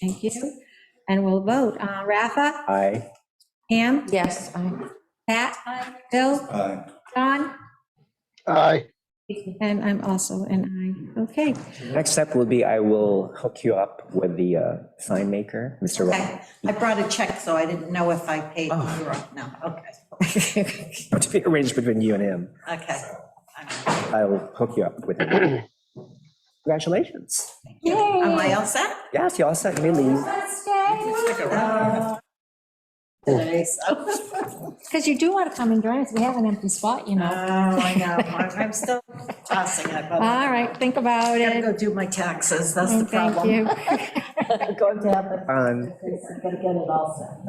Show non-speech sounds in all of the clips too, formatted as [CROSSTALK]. Thank you. And we'll vote. Uh, Rafa, Aye. Pam, Yes, I, Pat, Bill, Aye. John, Aye. and I'm also an aye. Okay. Next step will be I will hook you up with the uh, sign maker, Mr. Okay, I brought a check, so I didn't know if I paid Oh. you or not. Okay, Rob. To be arranged between you and him. okay. I'm- I'll hook you up with him. Congratulations. Am I all set Yes, you all set, you may leave. today? So, Because you do want to come and join us. We have an empty spot, you oh, know. I know, I'm I'm still tossing it, but I All right, think about gotta it. go do my taxes, that's the And Thank problem. you. I'm Going to have the, Um, I'm gonna get it all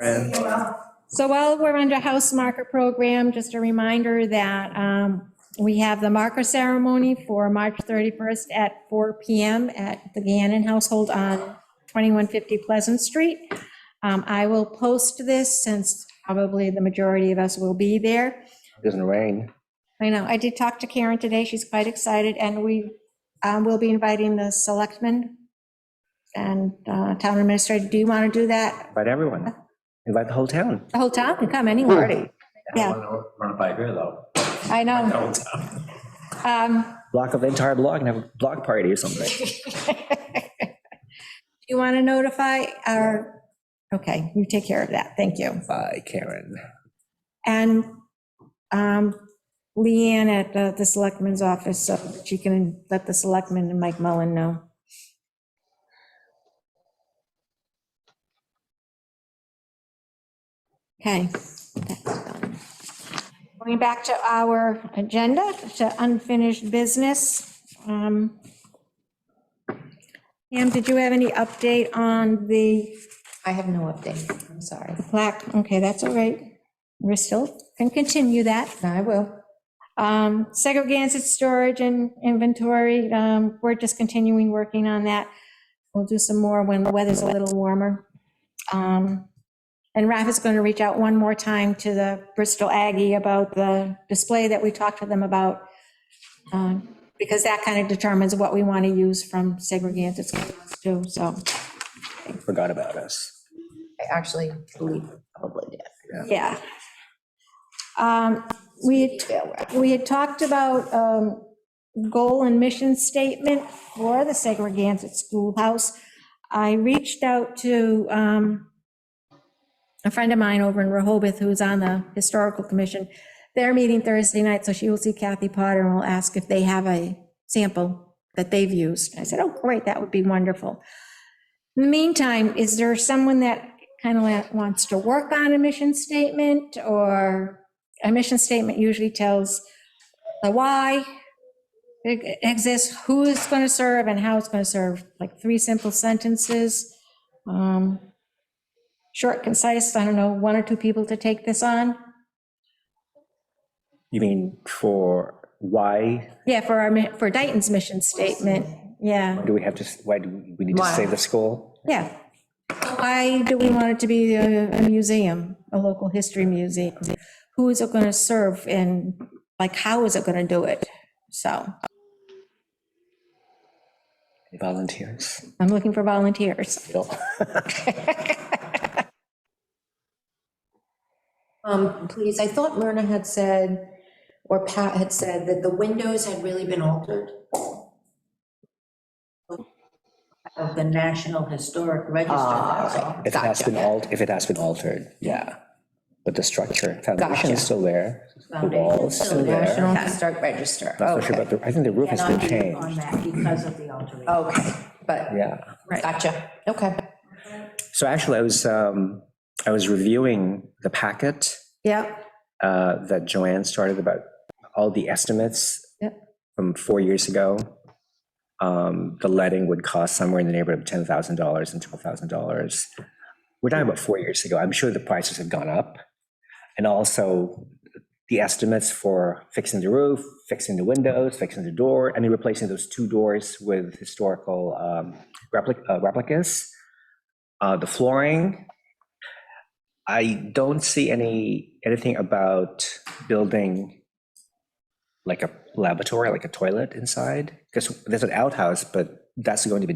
set. and So while we're under House Marker Program, just a reminder that um, we have the marker ceremony for March 31st at 4 PM at the Gannon Household on 2150 Pleasant Street. Um, I will post this since probably the majority of us will be there. it Doesn't rain. I know, I did talk to Karen today, she's quite excited, and we um, will be inviting the selectmen and uh, town administrator. Do you want to do that? Invite everyone. Invite the whole town. The whole town can come anywhere. Party. Yeah. Run it by here, though. I know. Um, [LAUGHS] Block of the entire block and have a block party or something. Do you want to notify our, okay, you take care of that, thank you. Bye, Karen. And um, Leanne at the- the selectman's office, so that you can let the selectman and Mike Mullen know. Okay. that's done. Going back to our agenda, to unfinished business. um, Pam, did you have any update on the I have no update, I'm sorry. plaque? Okay, that's all right. We're still, can continue that. No, I will. Um, Segregated storage and inventory, um, we're just continuing working on that. We'll do some more when the weather's a little warmer. Um, And Raf is going to reach out one more time to the Bristol Aggie about the display that we talked to them about, um, because that kind of determines what we want to use from segregated schools too, so, Forgot about us. I actually believe probably did. yeah. Um, We, we had talked about um, goal and mission statement for the segregated schoolhouse. I reached out to um, a friend of mine over in Rehoboth who's on the historical commission. They're meeting Thursday night, so she will see Kathy Potter and will ask if they have a sample that they've used. I said, oh, great, that would be wonderful. In the meantime, is there someone that kind of wants to work on a mission statement or a mission statement usually tells the why it exists, who is going to serve and how it's going to serve, like three simple sentences. um, Short, concise, I don't know, one or two people to take this on. You mean for why Yeah, for our, mi- for Dayton's mission statement, yeah, do we have to, why do we need to Why? save the school? yeah. Why do we want it to be a a museum, a local history museum? Who is it going to serve and like, how is it going to do it? So. Volunteers. I'm looking for volunteers. Bill. Um, please, I thought Myrna had said, or Pat had said, that the windows had really been altered. Of the National Historic Register, that's all. Ah, If it has been Gotcha. altered, if it has been altered, yeah. But the structure, foundation Gotcha. is still there. The wall is Foundation's still still there. National Historic Register. Not so sure about the, I think the roof has Cannot been be On changed. that because of the alteration. Okay, but, Yeah. gotcha, okay. So actually, I was, um, I was reviewing the packet Yep. uh, that Joanne started about all the estimates Yep. from four years ago. Um, The letting would cost somewhere in the neighborhood of $10,000 and $12,000. We're talking about four years ago. I'm sure the prices have gone up. And also the estimates for fixing the roof, fixing the windows, fixing the door, I mean, replacing those two doors with historical um, replic- uh, replicas, uh, the flooring, I don't see any, anything about building like a laboratory, like a toilet inside, because there's an outhouse, but that's going to be